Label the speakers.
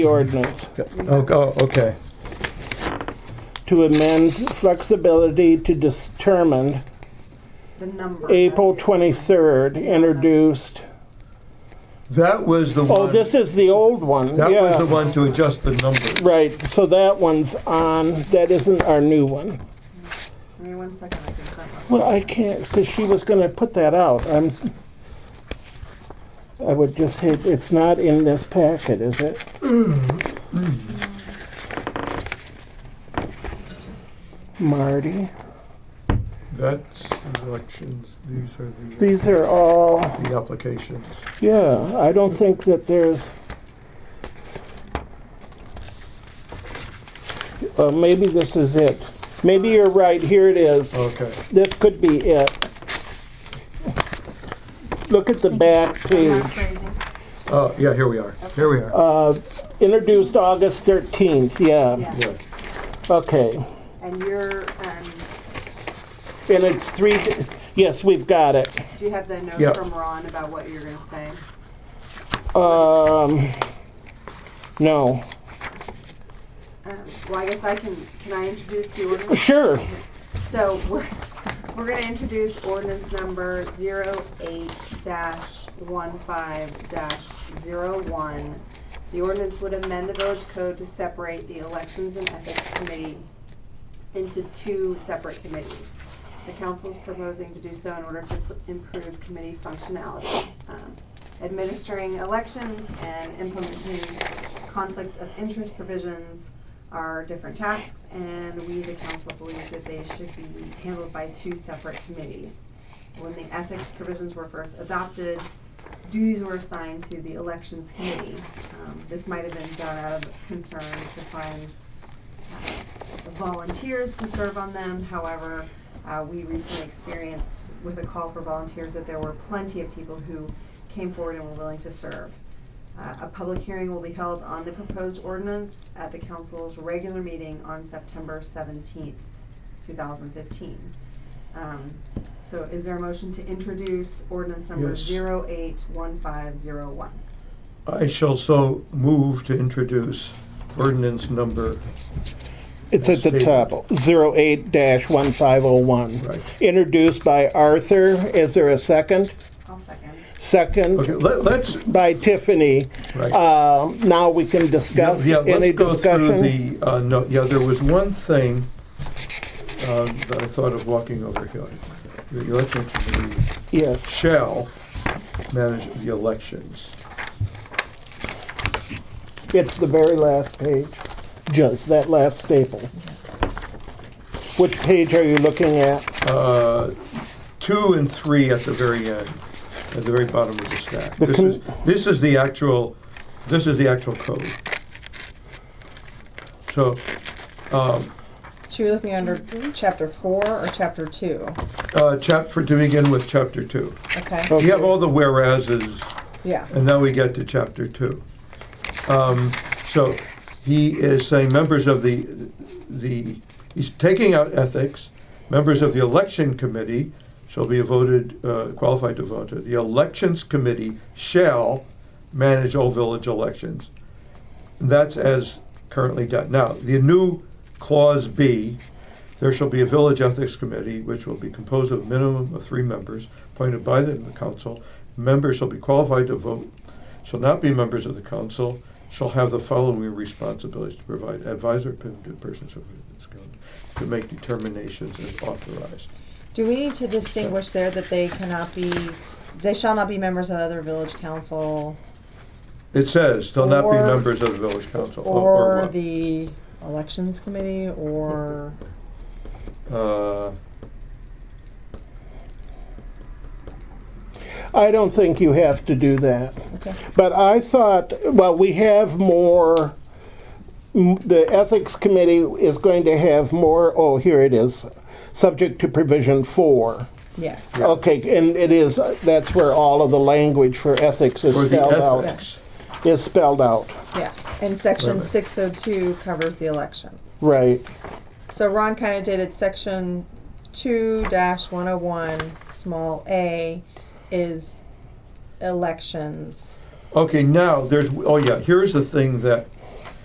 Speaker 1: the ordinance
Speaker 2: Oh, oh, okay.
Speaker 1: to amend flexibility to determine
Speaker 3: The number.
Speaker 1: April 23rd, introduced.
Speaker 2: That was the one.
Speaker 1: Oh, this is the old one,
Speaker 2: That was the
Speaker 1: yeah.
Speaker 2: one to adjust the numbers.
Speaker 1: Right, so that one's on, that isn't our new one.
Speaker 3: Give me one second, I can cut off.
Speaker 1: Well, I can't, because she was gonna put that out, I'm, I would just hate, it's not in this packet, is it? Marty,
Speaker 2: That's elections, these are the,
Speaker 1: these are all,
Speaker 2: the applications.
Speaker 1: yeah, I don't think that there's, uh, maybe this is it. Maybe you're right, here it is.
Speaker 2: Okay.
Speaker 1: This could be it. Look at the back
Speaker 3: Am I
Speaker 1: page,
Speaker 3: crazy?
Speaker 2: Uh, yeah, here we are. Here we are.
Speaker 1: uh, introduced August 13th, Um, yeah,
Speaker 3: Yes,
Speaker 2: Yeah.
Speaker 1: okay.
Speaker 3: and you're, um,
Speaker 1: And it's three, yes, we've got it.
Speaker 3: do you have the note
Speaker 2: Yep.
Speaker 3: from Ron about what you're gonna say?
Speaker 1: Um, no,
Speaker 3: Um, Well, I guess I can, can I introduce the ordinance?
Speaker 1: sure,
Speaker 3: So we're, we're gonna introduce ordinance number zero eight dash one five dash zero one. The ordinance would amend the village code to separate the elections and ethics committee into two separate committees. The council is proposing to do so in order to p- improve committee functionality, um, administering elections and implementing conflict of interest provisions are different tasks, and we, the council, believe that they should be handled by two separate committees. When the ethics provisions were first adopted, duties were assigned to the elections committee. Um, This might have been done out of concern to find volunteers to serve on them. However, uh, we recently experienced with a call for volunteers that there were plenty of people who came forward and were willing to serve. Uh, A public hearing will be held on the proposed ordinance at the council's regular meeting on September seventeenth, two thousand fifteen. Um, So is there a motion to introduce ordinance number
Speaker 2: Yes.
Speaker 3: zero eight one five zero one?
Speaker 2: I shall so move to introduce ordinance number,
Speaker 1: it's at the top, 08-1501.
Speaker 2: right.
Speaker 1: Introduced by Arthur, is there a second?
Speaker 3: I'll second.
Speaker 2: Okay,
Speaker 1: Second
Speaker 2: let, let's,
Speaker 1: by Tiffany.
Speaker 2: right.
Speaker 1: Uh, Now we can
Speaker 2: Yeah,
Speaker 1: discuss,
Speaker 2: yeah,
Speaker 1: any
Speaker 2: let's go through
Speaker 1: discussion?
Speaker 2: the, uh, no, yeah, there was one thing, uh, that I thought of walking over here. The election committee
Speaker 1: Yes,
Speaker 2: shall manage the elections.
Speaker 1: it's the very last page, just that last staple. Which page are you looking at?
Speaker 2: uh, two and three at the very end, at the very bottom of the stack. This
Speaker 1: con-
Speaker 2: is, this is the actual, this is the actual code. So, um,
Speaker 4: So you're looking under chapter four or chapter two?
Speaker 2: uh, chap, for, to begin with, chapter two.
Speaker 4: Okay,
Speaker 2: We have all the whereases,
Speaker 4: yeah.
Speaker 2: and now we get to chapter two. Um, so, he is saying members of the, the, he's taking out ethics, members of the election committee shall be voted, uh, qualified to vote. The elections committee shall manage all village elections. That's as currently done. Now, the new clause B, there shall be a village ethics committee which will be composed of a minimum of three members appointed by the council. Members shall be qualified to vote, shall not be members of the council, shall have the following responsibilities to provide advisor to persons of this council to make determinations as authorized.
Speaker 4: Do we need to distinguish there that they cannot be, they shall not be members of other village council
Speaker 2: It says, they'll not be
Speaker 4: Or-
Speaker 2: members of the village council.
Speaker 4: or
Speaker 2: what?
Speaker 4: the elections committee or,
Speaker 2: Uh,
Speaker 1: I don't think you have to do that.
Speaker 4: okay,
Speaker 1: But I thought, well, we have more, m- the Ethics Committee is going to have more, oh, here it is, subject to provision four.
Speaker 4: yes,
Speaker 1: Okay, and it is, that's where all of the language for ethics is
Speaker 2: For the
Speaker 1: spelled out,
Speaker 2: ethics.
Speaker 4: yes,
Speaker 1: is spelled out,
Speaker 4: yes. And
Speaker 2: Wait a
Speaker 4: section
Speaker 2: minute.
Speaker 4: six oh two covers the elections.
Speaker 1: right.
Speaker 4: So Ron kind of dated section two dash one oh one, small a, is elections.
Speaker 2: Okay, now, there's, oh yeah, here's the thing that